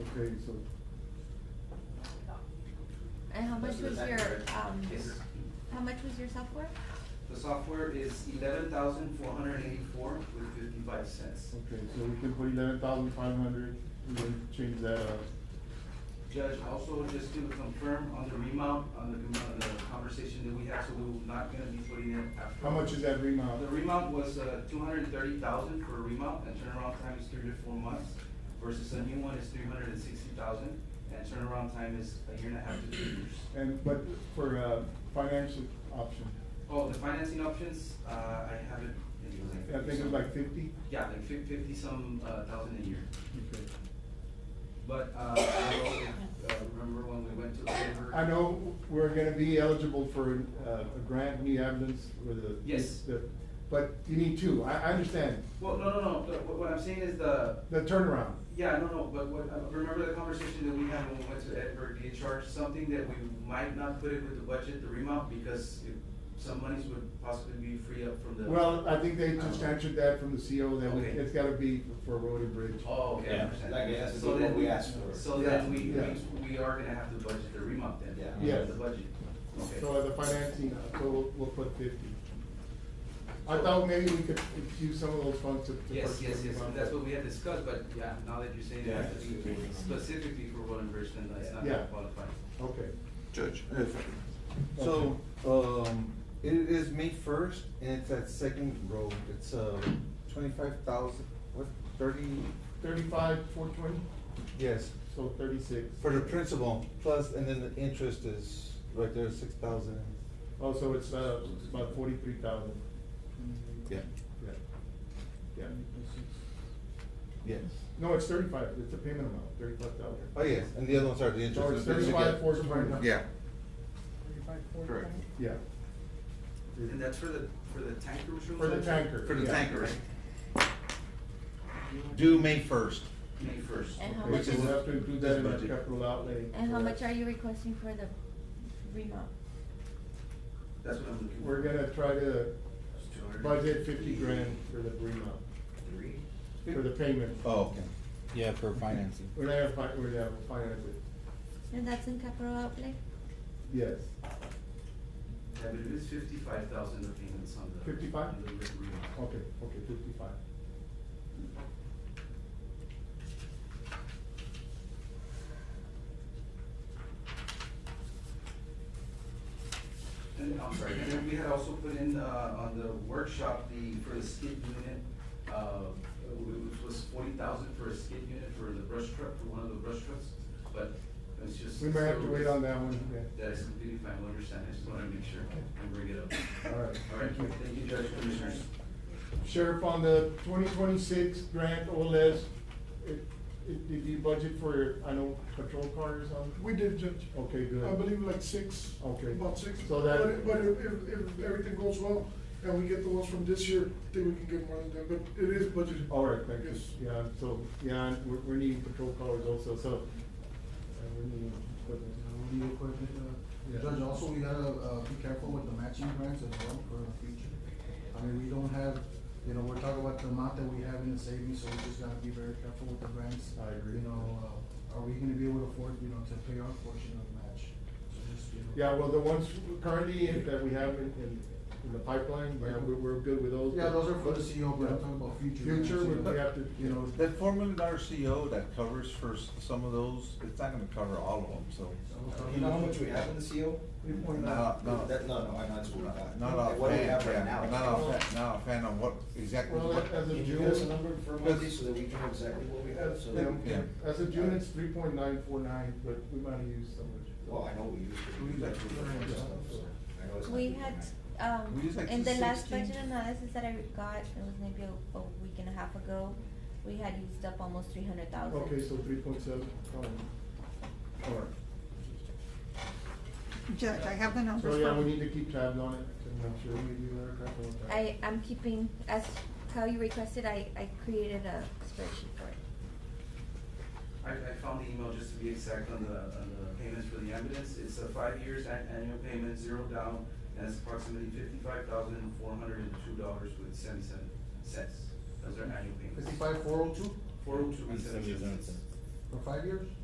Okay, so, And how much Those are the was your, background. um, Yes. how much was your software? The software is eleven thousand four hundred eighty-four with fifty-five cents. okay, so we can put eleven thousand five hundred, we can change that up. Judge, also just to confirm on the remount, on the, on the conversation that we had, so we're not gonna be putting it after. How much is that remount? The remount was, uh, two hundred and thirty thousand for a remount, and turnaround time is three to four months, versus a new one is three hundred and sixty thousand, and turnaround time is a year and a half to two years. And, but for, uh, financial option, Oh, the financing options, uh, I haven't. I think it's like fifty? Yeah, like fif- fifty some, uh, thousand a year. Okay. But, uh, I don't know, uh, remember when we went to the river? I know we're gonna be eligible for uh, a grant, new ambulance, or the. Yes. the- But you need two, I, I understand, Well, no, no, no, the- what, what I'm saying is the, the turnaround. yeah, no, no, but what, uh, remember the conversation that we had when we went to Edinburgh, they charged something that we might not put it with the budget, the remount, because it- some monies would possibly be free up from the. Well, I think they just answered that from the CO, that we- Um, Okay. it's gotta be for road and bridge. Oh, okay, I Yeah, understand. like, that's So then what we asked for. So then we, Yeah. we, we are gonna have to budget the remount then. Yeah. under Yes. The budget, okay. So the financing, uh, so we'll, we'll put fifty. I thought maybe we could use some of those funds to. to Yes, purchase yes, the yes, bond. that's what we had discussed, but yeah, now that you're saying it has to be Yeah. specifically for road and bridge, then it's not Yeah. gonna qualify. Okay, Judge, if, so, um, it is May first, and it's at Second Road, it's, uh, twenty-five thousand, what, thirty, thirty-five, four twenty, yes, so thirty-six. for the principal, plus, and then the interest is, right there, six thousand. Oh, so it's, uh, it's about forty-three thousand, Yeah. yeah, yeah. Yes. No, it's thirty-five, it's a payment amount, thirty-five thousand. Oh, yes, and the other ones are the interest. So it's and then you thirty-five, get- four twenty. Yeah, Correct. Yeah. And that's for the, for the tanker removal? For the tanker. for the yeah. tanker, due May first. May first. And how Okay, much so is, we'll have to include that in our Budget. capital outlay. and how much are you requesting for the remount? That's what I'm looking for. We're gonna try to budget fifty grand for the remount, Three. for the payment. Oh, okay. Yeah, for financing. We're gonna have, fi- we're gonna have finance it, And that's in capital outlay? yes. Yeah, but it is fifty-five thousand of payments on the. 55? on the remount. Okay, okay, fifty-five. And, I'm sorry, and then we had also put in, uh, on the workshop, the, for the skid unit, uh, which was forty thousand for a skid unit for the brush truck, for one of the brush trucks, but it's just. We might have to wait on that one, yeah. That is completely fine, we understand, I just wanna make sure and bring it up. All right, All right, thank you. thank you, Judge, Commissioners. Sheriff, on the twenty twenty-six grant or less, it, it, did you budget for, I know, patrol cars or something? We did, Judge. Okay, good. I believe like six. Okay. About six. So that- But, if- but if, if, if everything goes well and we get the ones from this year, I think we can get more than that, but it is budgeted. All right, thank you, Yes. yeah, so, yeah, and we're, we're needing patrol cars also, so. uh, we're needing equipment. New equipment, uh, Yeah. Judge, also we gotta, uh, be careful with the matching grants as well for the future. I mean, we don't have, you know, we're talking about the amount that we have in the savings, so we just gotta be very careful with the grants. I agree. You know, uh, are we gonna be able to afford, you know, to pay our portion of the match? So just, you know. Yeah, well, the ones currently that we have in, in, in the pipeline, yeah, we're, we're good with those. Yeah, those are for the CO, but I'm talking about future. grants, Future, you we- know. we have to, You know, That formula in our CO E that covers for s- some of those, it's not gonna cover all of them, so. You know how much we have in the E CO? No, no. That, no, no, I know it's not that. Not offhand, What do we have right yeah, now? not offhand, not offhand on what, exactly Well, what. as Can of you give us a June, number from Monday so that we can know exactly what we have, so. Yeah, Yeah. As of June, it's three point nine four nine, but we might have used some of it. Well, I know we used to, we used to do that stuff, so. I know it's not We doing had, that. We um, use like in the last 16. budget analysis that I got, it was maybe a, a week and a half ago, we had used up almost three hundred thousand. Okay, so three point seven, um, all right. Judge, I have the numbers So, from. yeah, we need to keep tabs on it to make sure we do our capital. attack. I, I'm keeping, as how you requested, I, I created a spreadsheet for it. I, I found the email just to be exact on the, on the payments for the ambulance. It's a five years an- annual payment, zero down, and it's approximately fifty-five thousand, four hundred and two dollars with seventy-seven cents. Those are annual payments. fifty-five, four oh two, Four oh two And and seventy-seven seventy-seven cents. cents. for five years?